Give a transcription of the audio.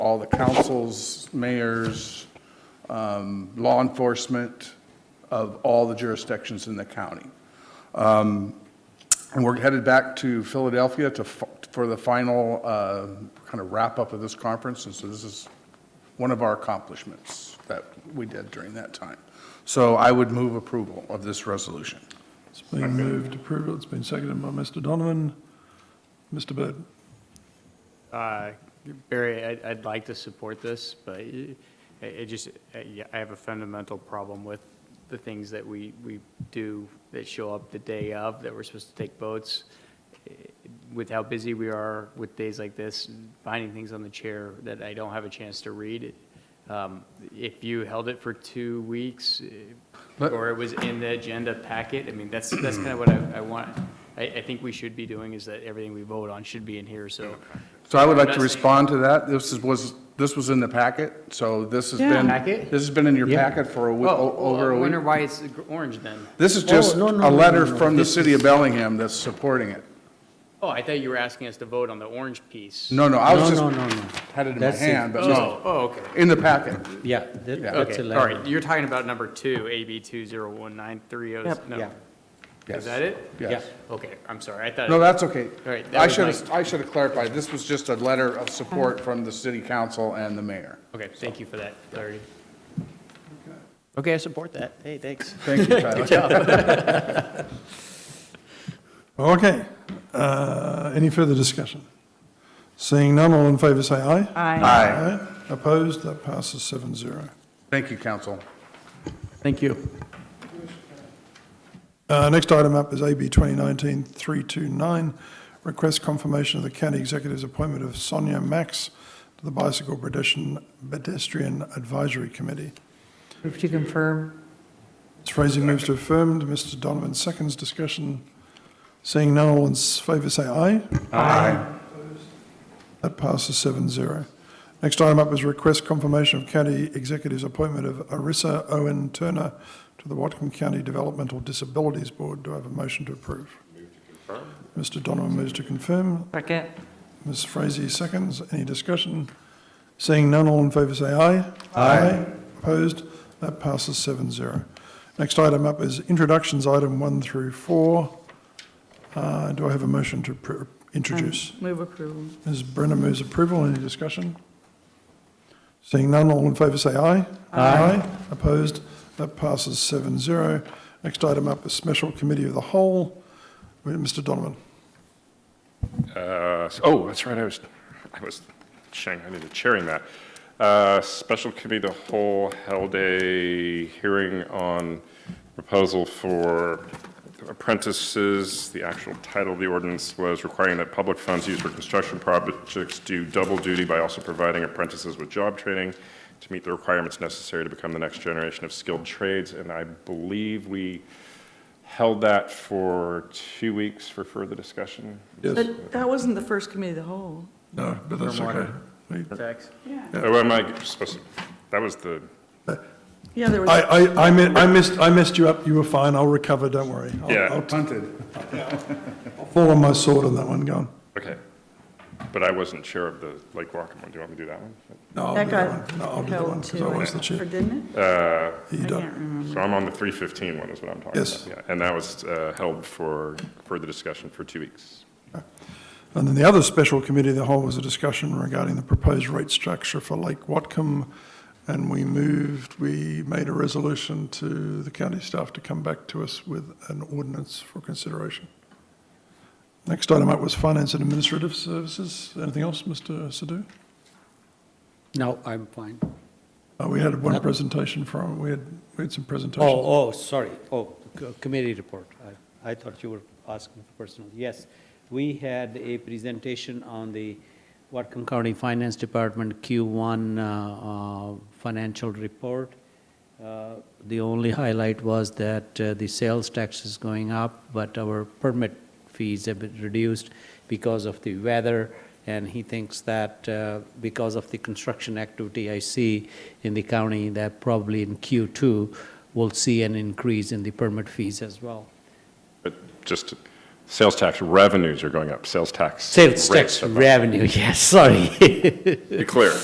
all the councils, mayors, um, law enforcement of all the jurisdictions in the county. Um, And we're headed back to Philadelphia to, f- for the final uh, kind of wrap-up of this conference, and so this is one of our accomplishments that we did during that time. So I would move approval of this resolution. It's been moved to approve it. It's been seconded by Mr. Donovan. Mr. Bud, Uh, Barry, I'd, I'd like to support this, but it, it just, uh, yeah, I have a fundamental problem with the things that we, we do that show up the day of, that we're supposed to take votes. Eh, With how busy we are with days like this, finding things on the chair that I don't have a chance to read. Um, If you held it for two weeks, eh, Let- or it was in the agenda packet, I mean, that's, that's kind of what I, I want. I, I think we should be doing is that everything we vote on should be in here, so So I would like to respond to that. This is, was, this was in the packet, so this has been. Packet? This has been in your packet for a, wee- o- over Oh, I a wonder week. why it's orange then. This is just Oh, no, no, a no, letter no, no. from the This city of Bellingham that's supporting it. Oh, I thought you were asking us to vote on the orange piece. No, no, I was No, just, no, no, no. had it in my That's it. hand, but no, Oh, oh, okay. in the packet. Yeah, that- Yeah. that's Okay, a all right, letter. you're talking about number two, AB two zero one nine three oh, Yep, no. yeah. Yes. Is that it? Yes. Okay, I'm sorry, I thought. No, that's okay. All right, that I was should my- have, I should have clarified, this was just a letter of support from the city council and the mayor. Okay, thank you for that clarity. Okay, I support that. Hey, thanks. Thank you, Tyler. Okay. Uh, Any further discussion? Seeing none, all in favor, say aye. Aye. Opposed, that passes seven zero. Thank you, council. Thank you. Uh, Next item up is AB 2019-329, request confirmation of the county executive's appointment of Sonia Max to the Bicycle Pedestrian Pedestrian Advisory Committee. Move to confirm. Ms. Frazee moves to affirm, Mr. Donovan seconds discussion. Seeing none, all in favor say aye. Aye. That passes seven zero. Next item up is request confirmation of county executive's appointment of Arissa Owen Turner to the Watcom County Developmental Disabilities Board. Do I have a motion to approve? Mr. Donovan moves to confirm. Second. Ms. Frazee seconds. Any discussion? Seeing none, all in favor say aye. Aye. Opposed? That passes seven zero. Next item up is introductions, item one through four. Uh, Do I have a motion to appro- introduce? Move approval. Ms. Brenner moves approval. Any discussion? Seeing none, all in favor say aye. Aye. Opposed? That passes seven zero. Next item up is special committee of the whole. Mr. Donovan. Uh, Oh, that's right, I was, I was chang, I need to chairing that. Uh, Special Committee of the Whole held a hearing on proposal for apprentices. The actual title of the ordinance was requiring that public funds used for construction projects do double duty by also providing apprentices with job training to meet the requirements necessary to become the next generation of skilled trades. And I believe we held that for two weeks for further discussion. But that wasn't the first committee of the whole. No, but that's okay. We- Thanks. Oh, am I supposed to, that was the, Yeah, there I, was, I, I mi- I missed, I messed you up. You were fine. I'll recover. Don't worry. I'll- Yeah. I'll t- Hunted. I'll fall on my sword on that one, go on. okay. But I wasn't sure of the Lake Rockland one. Do you want me to do that one? No, I'll that do that got one. No, I'll do that one held because I to, was the it, or chair. didn't You it? I can't don't. remember. So I'm on the 315 one is what I'm talking about. Yes. Yeah, And that was uh, held for further discussion for two weeks. And then the other special committee of the whole was a discussion regarding the proposed rate structure for Lake Watcom. And we moved, we made a resolution to the county staff to come back to us with an ordinance for consideration. Next item up was finance and administrative services. Anything else, Mr. Sadoo? No, I'm fine. Uh, we had one presentation from, we had, we had some presentations. Oh, oh, sorry. Oh, c- committee report. I- I thought you were asking for personal. Yes, we had a presentation on the Whatcom County Finance Department Q1 uh, uh, financial report. Uh, The only highlight was that uh, the sales tax is going up, but our permit fees have been reduced because of the weather, and he thinks that uh, because of the construction activity I see in the county, that probably in Q2, we'll see an increase in the permit fees as well. But just, sales tax revenues are going up, sales tax. Sales tax rates are up. revenue, yes, sorry. Be clear,